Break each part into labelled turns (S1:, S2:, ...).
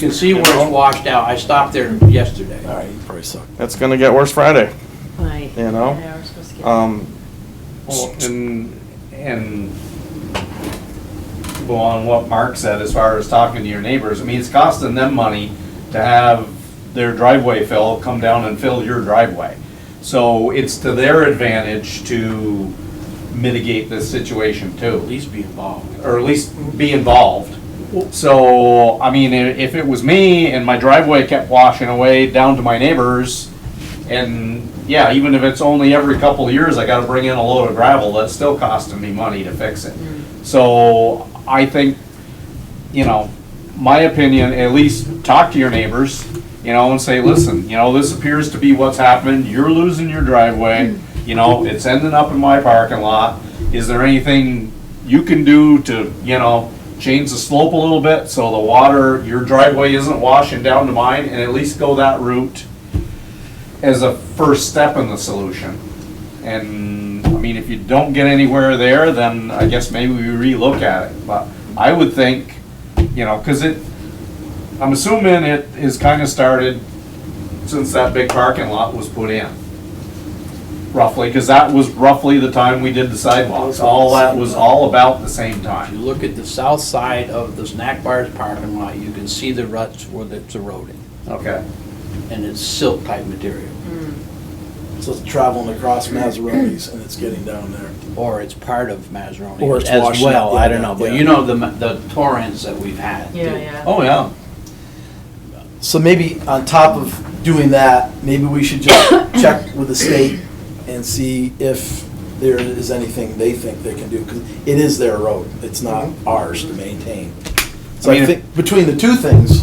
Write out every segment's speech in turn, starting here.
S1: You can see where it's washed out. I stopped there yesterday.
S2: All right, you probably suck.
S3: It's gonna get worse Friday,
S4: Right.
S3: you know?
S4: Yeah, we're supposed to get-
S3: Um,
S5: Well, and, and well, on what Mark said, as far as talking to your neighbors, I mean, it's costing them money to have their driveway fill, come down and fill your driveway. So it's to their advantage to mitigate this situation
S1: At
S5: too,
S1: least be involved.
S5: or at least be involved. So, I mean, i- if it was me and my driveway kept washing away down to my neighbors, and yeah, even if it's only every couple of years, I gotta bring in a load of gravel, that's still costing me money to fix it. So, I think, you know, my opinion, at least talk to your neighbors, you know, and say, listen, you know, this appears to be what's happened, you're losing your driveway, you know, it's ending up in my parking lot, is there anything you can do to, you know, change the slope a little bit so the water, your driveway isn't washing down to mine, and at least go that route as a first step in the solution. And, I mean, if you don't get anywhere there, then I guess maybe we relook at it. But I would think, you know, because it, I'm assuming it is kind of started since that big parking lot was put in. Roughly, because that was roughly the time we did the sidewalks. All that was all about the same
S1: If
S5: time.
S1: you look at the south side of the snack bar's parking lot, you can see the ruts where it's eroded.
S5: Okay.
S1: And it's silt type material,
S2: So it's traveling across Mazzaroni's and it's getting down there.
S1: or it's part of
S2: Or
S1: Mazzaroni
S2: it's
S1: as
S2: washed
S1: well.
S2: out,
S1: I don't
S2: yeah,
S1: know, but
S2: yeah.
S1: you know the, ma- the torrents that we've had.
S4: Yeah,
S1: too.
S4: yeah.
S5: Oh, yeah.
S2: So maybe on top of doing that, maybe we should just check with the state and see if there is anything they think they can do, because it is their road, it's not ours to maintain. So
S5: Mm-hmm. I mean,
S2: I
S5: if-
S2: think, between the two things,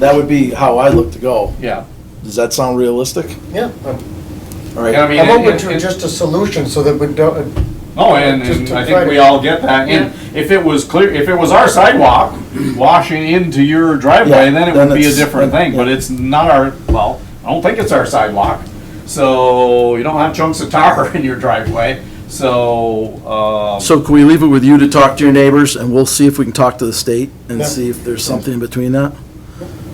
S2: that would be how I look to go.
S5: Yeah.
S2: Does that sound realistic?
S6: Yeah, I'm
S2: All
S5: And I
S2: right,
S5: mean,
S6: I'm
S5: it-
S6: open
S5: it-
S6: to
S5: it-
S6: just a solution so that we don't, uh,
S5: Oh, and,
S6: Just
S5: and
S6: to
S5: I think we
S6: try to-
S5: all get that, and if it was clear, if it was our sidewalk washing into your driveway,
S2: Yeah,
S5: then it
S2: then
S5: would be a
S2: it's-
S5: different thing, but
S2: yeah.
S5: it's not our, well, I don't think it's our sidewalk. So you don't have chunks of tar in your driveway, so, um,
S2: so can we leave it with you to talk to your neighbors, and we'll see if we can talk to the state and
S6: Yeah.
S2: see if there's something in between that?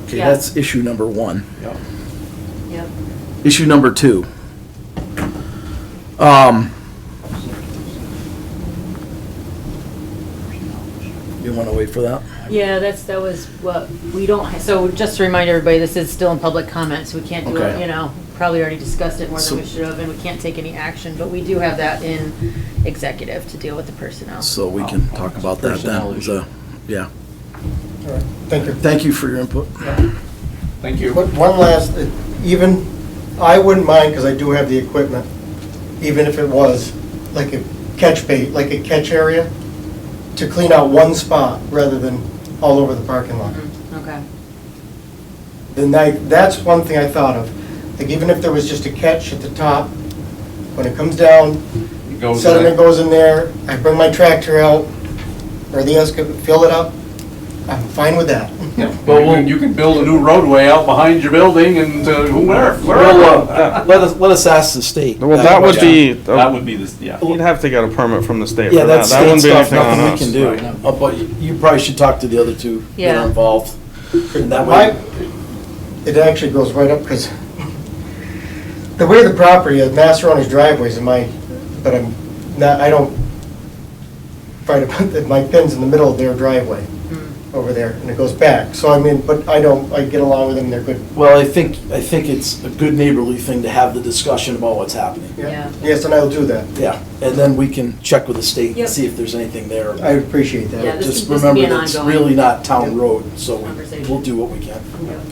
S2: Okay,
S4: Yeah.
S2: that's issue number one.
S4: Yep.
S2: Issue number two. Um, you want to wait for that?
S4: Yeah, that's, that was what, we don't, ha- so just to remind everybody, this is still in public comment, so we can't do it,
S2: Okay.
S4: you know, probably already discussed it more
S2: So-
S4: than we should have, and we can't take any action, but we do have that in executive to deal with the personnel.
S2: So we can talk about that then. So, yeah.
S6: thank you.
S2: Thank you for your input.
S5: thank you.
S6: But one last, uh, even, I wouldn't mind, because I do have the equipment, even if it was like a catch bait, like a catch area, to clean out one spot rather than all over the parking lot.
S4: Okay.
S6: Then that, that's one thing I thought of. Like even if there was just a catch at the top, when it comes down,
S5: It goes
S6: sediment
S5: in.
S6: goes in there, I bring my tractor out, or the excavator, fill it up, I'm fine with that.
S5: Yeah, But we'll- you can build a new roadway out behind your building and to whoever,
S2: Well,
S5: wherever.
S2: uh, let us, let us ask the state.
S3: well, that would be,
S5: That would be this, yeah.
S3: you'd have to get a permit from the state
S2: Yeah,
S3: for that.
S2: that's
S3: That
S2: state
S3: wouldn't be
S2: stuff,
S3: anything on
S2: nothing we
S3: us.
S2: can do. Uh, But you- you probably should talk to the other two that
S4: Yeah.
S2: are involved. And that
S6: My,
S2: way,
S6: it actually goes right up, because the way the property uh, is, Massaroni's driveways in my, but I'm not, I don't try to put, the- my pin's in the middle of their driveway
S4: Hmm.
S6: over there, and it goes back. So I mean, but I don't, I get along with them, they're good.
S2: well, I think, I think it's a good neighborly thing to have the discussion about what's happening.
S4: Yeah.
S6: Yes, and I'll do that.
S2: Yeah, and then we can check with the state and
S4: Yep.
S2: see if there's anything there.
S6: I appreciate that.
S4: Yeah, this
S2: Just
S4: can- this can be
S2: remember,
S4: an
S2: that's
S4: ongoing
S2: really not town road, so
S4: conversation.
S2: we'll do what we can.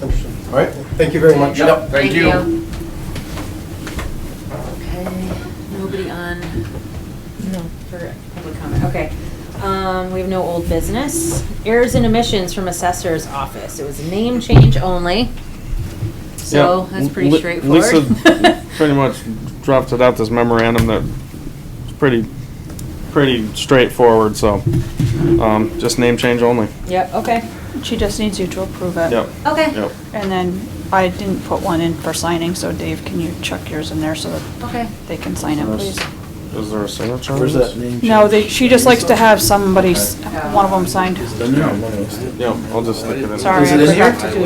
S6: Understood.
S2: All right?
S6: Thank you very much.
S5: Yep, thank you.
S4: Okay, nobody on, no, for public comment, okay. Um, we have no old business. Errors and omissions from assessor's office. It was a name change only. So
S3: Yeah,
S4: that's pretty
S3: Li-
S4: straightforward.
S3: Lisa pretty much drafted out this memorandum that is pretty, pretty straightforward, so, um, just name change only.
S4: Yep, okay,
S7: She just needs you to approve
S4: Uh,
S7: it.
S3: Yep,
S4: okay,
S3: yep.
S7: And then I didn't put one in for signing, so Dave, can you chuck yours in there so that
S4: okay.
S7: they can sign it, please?
S3: Is there a signature? on
S2: Where's
S3: this?
S2: that name?
S7: No,
S2: change?
S7: they, she just likes to have somebody, s- one of them signed.
S2: Is it in there?
S3: Yeah, I'll just stick it in.
S7: Sorry,
S2: Is
S7: I
S2: it in here?
S7: forgot to do